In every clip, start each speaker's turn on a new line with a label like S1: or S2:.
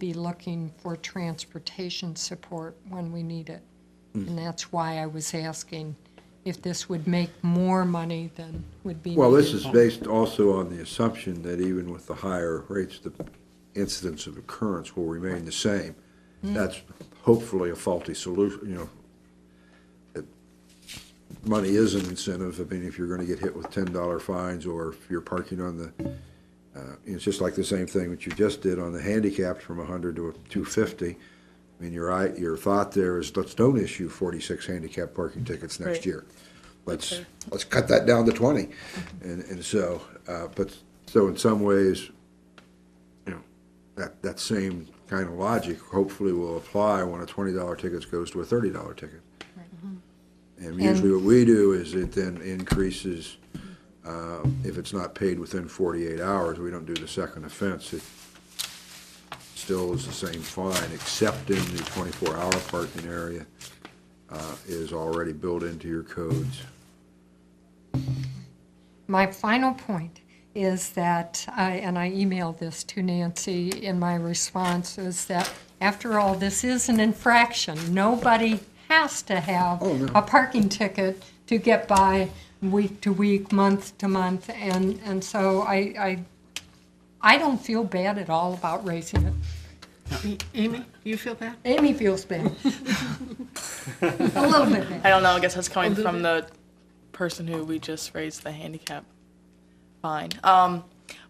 S1: be looking for transportation support when we need it.
S2: Mm.
S1: And that's why I was asking if this would make more money than would be.
S2: Well, this
S1: needed.
S2: is based also on the assumption that even with the higher rates, the incidence of occurrence will remain the same. That's hopefully a faulty solution, you know. It- Money is an incentive, I mean, if you're gonna get hit with ten dollar fines, or if you're parking on the, uh, it's just like the same thing that you just did on the handicapped from hundred to two fifty. I mean, your, i- your thought there is, let's don't issue forty-six handicap parking tickets next
S3: Right.
S2: year let's, let's cut that down to twenty. And, and so, uh, but, so in some ways, you know, that, that same kind of logic hopefully will apply when a twenty dollar ticket goes to a thirty dollar ticket. And usually what we do is it then increases, uh, if it's not paid within forty-eight hours, we don't do the second offense. It still is the same fine, except in the twenty-four hour parking area, uh, is already built into your codes.
S1: My final point is that, I- and I emailed this to Nancy in my response, is that after all, this is an infraction. Nobody has to have
S2: Oh, no.
S1: a parking ticket to get by week to week, month to month. And, and so I, I, I don't feel bad at all about raising it.
S4: Amy, you feel bad?
S1: Amy feels bad. A little bit bad.
S3: I don't know. I guess that's coming from the person who we just raised the handicap fine. Um,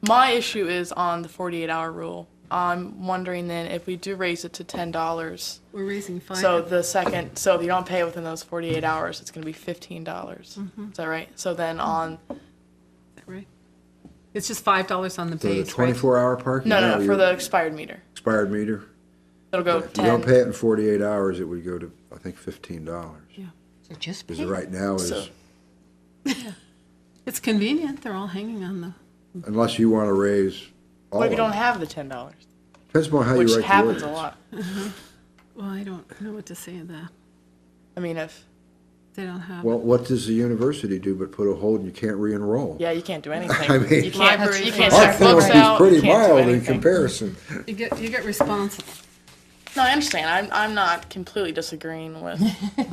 S3: my issue is on the 48 hour rule. I'm wondering then if we do raise it to ten dollars.
S4: We're raising five.
S3: So the second, so if you don't pay within those 48 hours, it's going to be fifteen dollars. Is that right? So then on
S4: right? It's just five dollars on the
S2: So the
S4: base, right?
S2: twenty-four hour parking?
S3: no no,
S2: hour,
S3: no for
S2: your
S3: the expired meter,
S2: Expired meter?
S3: it'll go
S2: If you
S3: ten.
S2: don't pay it in forty-eight hours, it would go to, I think, fifteen dollars.
S4: Yeah.
S1: So just
S2: Because
S1: pay.
S2: right now
S3: So-
S2: is,
S4: It's convenient, they're all hanging on the,
S2: unless you want to raise all
S3: what if
S2: of
S3: you don't
S2: it.
S3: have the ten dollars,
S2: Depends upon how you write
S3: which
S2: the
S3: happens a
S2: ordinance.
S3: lot?
S4: well, I don't know what to say to that.
S3: I mean, if
S4: They don't have,
S2: Well, what does the university do but put a hold and you can't re-enroll?
S3: yeah, you can't do anything.
S2: I mean-
S3: you can't you
S4: Libraries
S3: can't
S2: Our
S3: check books
S2: penalty's
S3: out. you
S2: pretty
S3: can't do
S2: mild in
S3: anything.
S2: comparison.
S4: you get, you get responsible.
S3: No, I understand. I'm, I'm not completely disagreeing with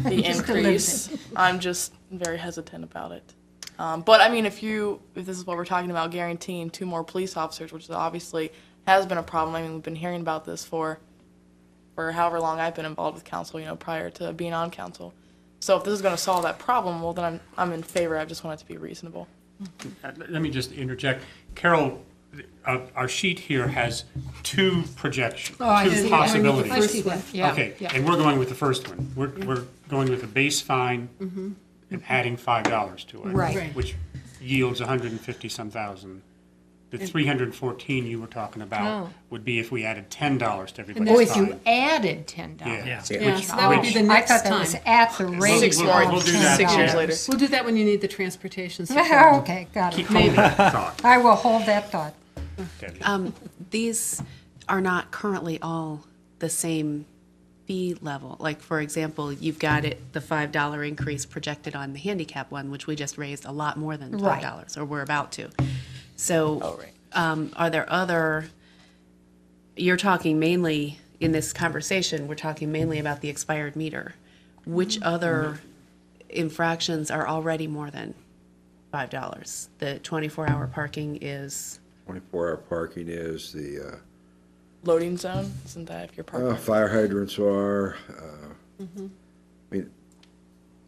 S3: the increase. I'm just very hesitant about it. Um, but I mean, if you, if this is what we're talking about, guaranteeing two more police officers, which is obviously has been a problem. I mean, we've been hearing about this for, for however long I've been involved with council, you know, prior to being on council. So if this is going to solve that problem, well, then I'm, I'm in favor. I just want it to be reasonable.
S5: Uh, Let me just interject. Carol, uh, our sheet here has two projections,
S1: Oh, I see. I
S5: two
S1: see. I
S5: possibilities.
S1: see that, yeah,
S5: Okay,
S1: yeah.
S5: and we're going with the first one. We're, we're going with a base fine and adding five dollars to it.
S1: Mm-hmm. Right.
S4: Right.
S5: Which yields a hundred and fifty some thousand. The three hundred and fourteen you were talking about
S1: Oh.
S5: would be if we added ten dollars
S1: Or
S5: to everybody's
S1: if you
S5: fine.
S1: added ten
S5: Yeah.
S1: dollars.
S4: Yeah, so that would be the
S1: Oh, I
S4: next
S1: thought that was
S4: time.
S1: at the rate
S3: Six
S1: of
S3: more-
S5: we'll do that.
S3: Six years
S5: Yeah.
S3: later.
S4: We'll do that when you need the transportation support.
S1: Okay, got
S5: Keep
S1: it.
S5: holding that thought.
S1: I will hold that thought.
S5: Debbie.
S6: these are not currently all the same fee level. Like, for example, you've got it, the five dollar increase projected on the handicap one, which we just raised a lot more than
S1: Right.
S6: five dollars, or we're about to. So.
S3: Oh, right.
S6: Um, are there other, you're talking mainly, in this conversation, we're talking mainly about the expired meter. Which
S3: Mm-hmm.
S6: other infractions are already more than five dollars? The twenty-four hour parking is,
S2: Twenty-four hour parking is the, uh,
S3: Loading zone, isn't that if you're parked?
S2: Uh, fire hydrants are, uh, I mean,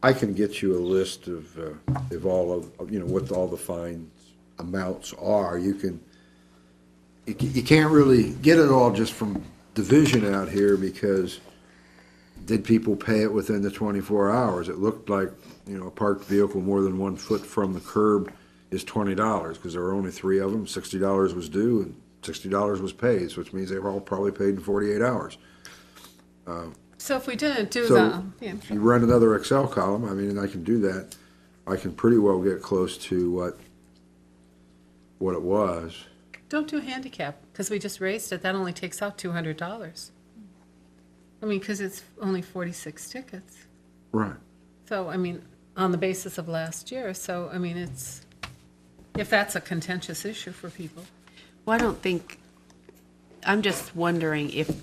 S2: I can get you a list of, uh, of all of, of, you know, what all the fines amounts are. You can, you ca- you can't really get it all just from division out here because did people pay it within the twenty-four hours? It looked like, you know, a parked vehicle more than one foot from the curb is twenty dollars, because there were only three of them, sixty dollars was due, and sixty dollars was paid, which means they were all probably paid in forty-eight hours.
S4: So if we didn't do the,
S2: So,
S4: yeah,
S2: if you run another Excel column, I mean, and I can do that, I can pretty well get close to what, what it was.
S4: don't do handicap, because we just raised it, that only takes out two hundred dollars. I mean, because it's only forty-six tickets.
S2: Right.
S4: So, I mean, on the basis of last year, so, I mean, it's, if that's a contentious issue for people.
S6: well, I don't think I'm just wondering if